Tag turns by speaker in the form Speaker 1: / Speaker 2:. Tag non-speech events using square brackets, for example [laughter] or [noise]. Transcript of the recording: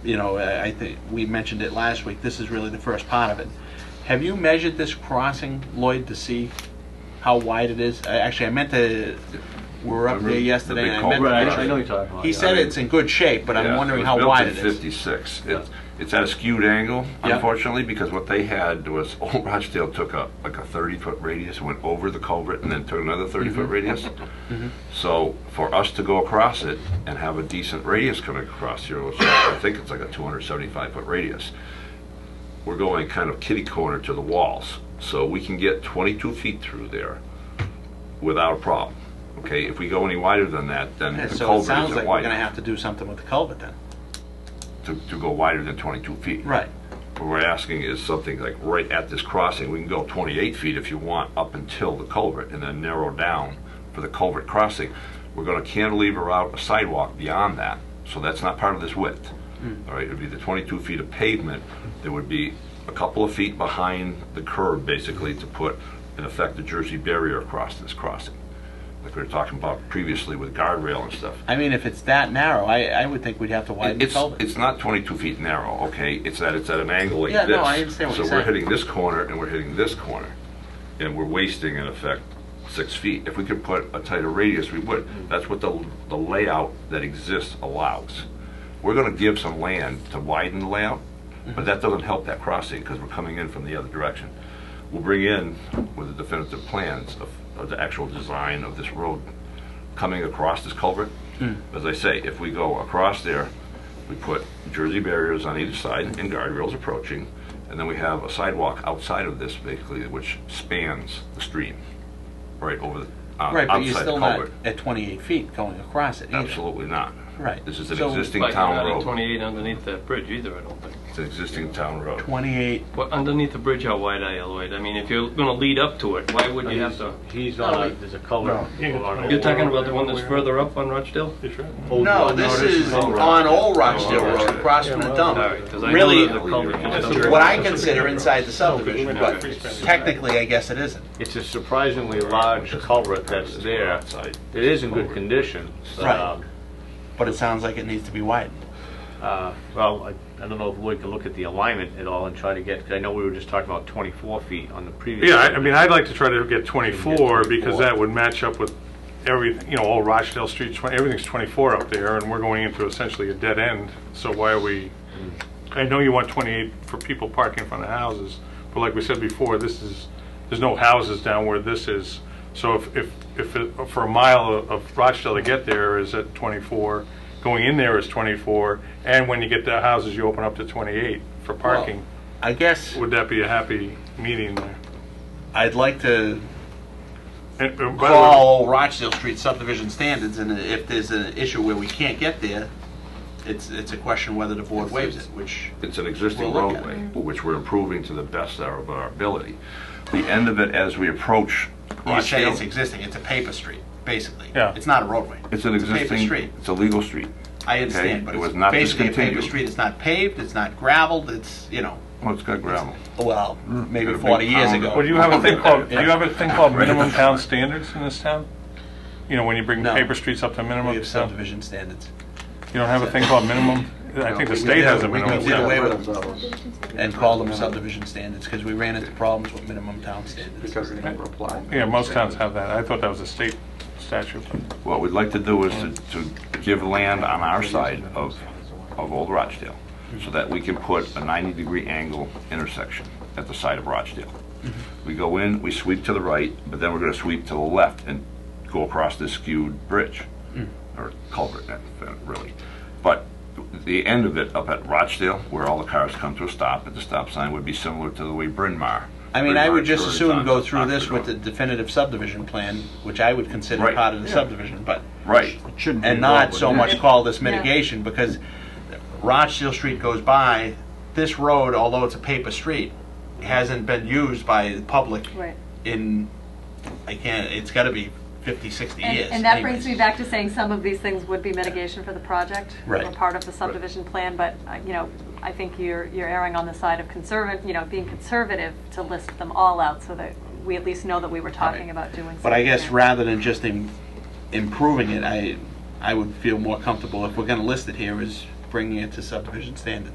Speaker 1: you know, I I think, we mentioned it last week, this is really the first part of it. Have you measured this crossing, Lloyd, to see how wide it is? I- Actually, I meant to, we were up
Speaker 2: Remember
Speaker 1: there
Speaker 2: the
Speaker 1: yesterday,
Speaker 2: big
Speaker 1: and I
Speaker 2: culvert?
Speaker 1: meant
Speaker 2: Right,
Speaker 1: to...
Speaker 2: I know
Speaker 3: you're talking about,
Speaker 1: He
Speaker 3: yeah.
Speaker 1: said it's in good shape, but
Speaker 2: Yeah,
Speaker 1: I'm wondering
Speaker 2: was
Speaker 1: how
Speaker 2: built
Speaker 1: wide
Speaker 2: in
Speaker 1: it is.
Speaker 2: Fifty-six.
Speaker 3: Yeah.
Speaker 2: It- It's at a skewed angle,
Speaker 1: Yeah.
Speaker 2: unfortunately, because what they had was [laughs] Old Rochdale took up like a thirty-foot radius, went over the culvert, and then took another
Speaker 1: Mm-hmm.
Speaker 2: thirty-foot radius. So for us to go across it and have a decent radius coming across here, which I think it's like a two hundred seventy-five foot radius, we're going kind of kitty corner to the walls. So we can get twenty-two feet through there without a problem. Okay, if we go any wider than that, then
Speaker 1: Yeah,
Speaker 2: the
Speaker 1: So it
Speaker 2: culvert
Speaker 1: sounds
Speaker 2: isn't
Speaker 1: like we're
Speaker 2: wide
Speaker 1: gonna have
Speaker 2: enough
Speaker 1: to do something with the culvert then.
Speaker 2: to, to go wider than twenty-two feet.
Speaker 1: Right.
Speaker 2: What we're asking is something like right at this crossing, we can go 28 feet if you want up until the culvert and then narrow down for the culvert crossing. We're gonna cantilever out a sidewalk beyond that, so that's not part of this width. All right, it'd be the 22 feet of pavement, there would be a couple of feet behind the curb basically to put, in effect, the Jersey barrier across this crossing. Like we were talking about previously with guardrail and stuff.
Speaker 1: I mean, if it's that narrow, I, I would think we'd have to widen the
Speaker 2: It's,
Speaker 1: culvert.
Speaker 2: it's not 22 feet narrow, okay? It's that it's at an angle like
Speaker 1: Yeah,
Speaker 2: this.
Speaker 1: no, I understand what you're
Speaker 2: So we're
Speaker 1: saying.
Speaker 2: hitting this corner and we're hitting this corner, and we're wasting, in effect, six feet. If we could put a tighter radius, we would.
Speaker 1: Mm-hmm.
Speaker 2: That's what the, the layout that exists allows. We're gonna give some land to widen the layout,
Speaker 1: Mm-hmm.
Speaker 2: but that doesn't help that crossing, because we're coming in from the other direction. We'll bring in, with the definitive plans of, of the actual design of this road coming across this culvert.
Speaker 1: Hmm.
Speaker 2: As I say, if we go across there, we put Jersey barriers on either side and guardrails approaching, and then we have a sidewalk outside of this basically, which spans the stream, right over the, uh,
Speaker 1: Right, but you're
Speaker 2: outside the
Speaker 1: still not
Speaker 2: culvert.
Speaker 1: at 28 feet going across it either.
Speaker 2: Absolutely not.
Speaker 1: Right.
Speaker 2: This is an
Speaker 1: So-
Speaker 2: existing
Speaker 3: Like,
Speaker 2: town
Speaker 3: not at
Speaker 2: road.
Speaker 3: 28 underneath that bridge either, I don't think.
Speaker 2: It's an existing town road.
Speaker 1: 28,
Speaker 3: But underneath the bridge, how wide are you, Lloyd? I mean, if you're gonna lead up to it, why would you have to?
Speaker 4: He's
Speaker 3: No,
Speaker 4: on,
Speaker 3: he-
Speaker 4: a- there's a culvert. along
Speaker 3: You're
Speaker 4: the
Speaker 3: talking about the one that's further up on Rochdale?
Speaker 4: old
Speaker 1: No,
Speaker 4: one.
Speaker 1: this is
Speaker 2: Old
Speaker 1: on Old Rochdale
Speaker 2: Old
Speaker 1: Road,
Speaker 2: Rochdale.
Speaker 1: across from the
Speaker 3: All
Speaker 1: dump.
Speaker 3: right, 'cause I know
Speaker 1: Really,
Speaker 3: there's a culvert just up there.
Speaker 1: Oh. what I consider inside the subdivision, but technically, I guess it isn't.
Speaker 4: It's a surprisingly large culvert that's there.
Speaker 2: Outside.
Speaker 4: It is in good condition.
Speaker 1: Right.
Speaker 4: Um,
Speaker 1: But it sounds like it needs to be widened.
Speaker 4: uh, Well, I I don't know if Lloyd can look at the alignment at all and try to get, because I know we were just talking about 24 feet on the previous.
Speaker 5: Yeah, I I mean, I'd like to try to get 24, because
Speaker 4: 24.
Speaker 5: that would match up with every, you know, all Rochdale Street, 20 everything's 24 up there, and we're going into essentially a dead end, so why are we, I know you want 28 for people parking in front of houses, but like we said before, this is, there's no houses down where this is, so if, if, if it- for a mile of- of Rochdale to get there is at 24, going in there is 24, and when you get to houses, you open up to 28 for parking,
Speaker 1: I guess
Speaker 5: would that be a happy meeting there?
Speaker 1: I'd like to
Speaker 5: And, uh, by the way-
Speaker 1: call Old Rochdale Street subdivision standards, and if there's an issue where we can't get there, it's, it's a question whether the board waives it, which,
Speaker 2: It's an existing
Speaker 1: We'll look at
Speaker 2: roadway, which we're improving to the best of our- of our ability. The end of it, as we approach
Speaker 1: you say it's
Speaker 2: Rochdale,
Speaker 1: existing, it's a paper street, basically.
Speaker 5: Yeah.
Speaker 1: It's not a roadway.
Speaker 2: it's an
Speaker 1: paper
Speaker 2: existing,
Speaker 1: street.
Speaker 2: it's a legal street.
Speaker 1: I understand, but
Speaker 2: it
Speaker 1: it's
Speaker 2: was not
Speaker 1: basically a paper
Speaker 2: discontinued.
Speaker 1: street, it's not paved, it's not gravelled, it's, you know,
Speaker 2: Well, it's got gravel.
Speaker 1: well, maybe
Speaker 2: Got a big
Speaker 1: 40 years
Speaker 2: pound.
Speaker 1: ago.
Speaker 5: Well, do you have a thing
Speaker 1: [laughs]
Speaker 5: called, do you have a thing called minimum town standards in this town? You know, when you bring
Speaker 1: No.
Speaker 5: paper streets up to minimum,
Speaker 1: We
Speaker 5: you
Speaker 1: have
Speaker 5: don't
Speaker 1: subdivision standards.
Speaker 5: have a thing called minimum? I think the state has a
Speaker 1: We
Speaker 5: minimum.
Speaker 1: did away
Speaker 5: standard.
Speaker 1: with them and called them subdivision standards because we ran into problems with minimum town standards.
Speaker 6: Because they never applied.
Speaker 5: Yeah, most towns have that. I thought that was a state statute.
Speaker 2: What we'd like to do is to, to give land on our side of, of Old Rochdale, so that we can put a 90-degree angle intersection at the side of Rochdale. We go in, we sweep to the right, but then we're gonna sweep to the left and go across this skewed bridge, or culvert, eh, eh, really. But the end of it up at Rochdale, where all the cars come to a stop at the stop sign, would be similar to the way Bryn Mawr.
Speaker 1: I mean,
Speaker 2: Bryn
Speaker 1: I
Speaker 2: Mawr
Speaker 1: would just
Speaker 2: turns
Speaker 1: assume
Speaker 2: on
Speaker 1: go through
Speaker 2: Oxford
Speaker 1: this with the
Speaker 2: Road.
Speaker 1: definitive subdivision plan, which I would consider
Speaker 2: Right.
Speaker 1: part of the
Speaker 2: Yeah.
Speaker 1: subdivision, but,
Speaker 2: Right,
Speaker 6: Shouldn't be
Speaker 1: and
Speaker 6: involved
Speaker 1: not
Speaker 6: with
Speaker 1: so
Speaker 6: that.
Speaker 1: much call this mitigation because Rochdale Street goes by, this road, although it's a paper street, hasn't been used by the public
Speaker 7: Right.
Speaker 1: in, I can't, it's gotta be 50, 60
Speaker 7: And-
Speaker 1: years.
Speaker 7: And that brings
Speaker 1: anyways.
Speaker 7: me back to saying some of these things would be mitigation for the project.
Speaker 1: Right.
Speaker 7: Or part of the subdivision plan, but, uh, you know, I think you're, you're erring on the side of conservative, you know, being conservative to list them all out so that we at least know that we were talking about doing something.
Speaker 1: But I guess
Speaker 7: there.
Speaker 1: rather than just im- improving it, I, I would feel more comfortable if we're gonna list it here is bringing it to subdivision standards.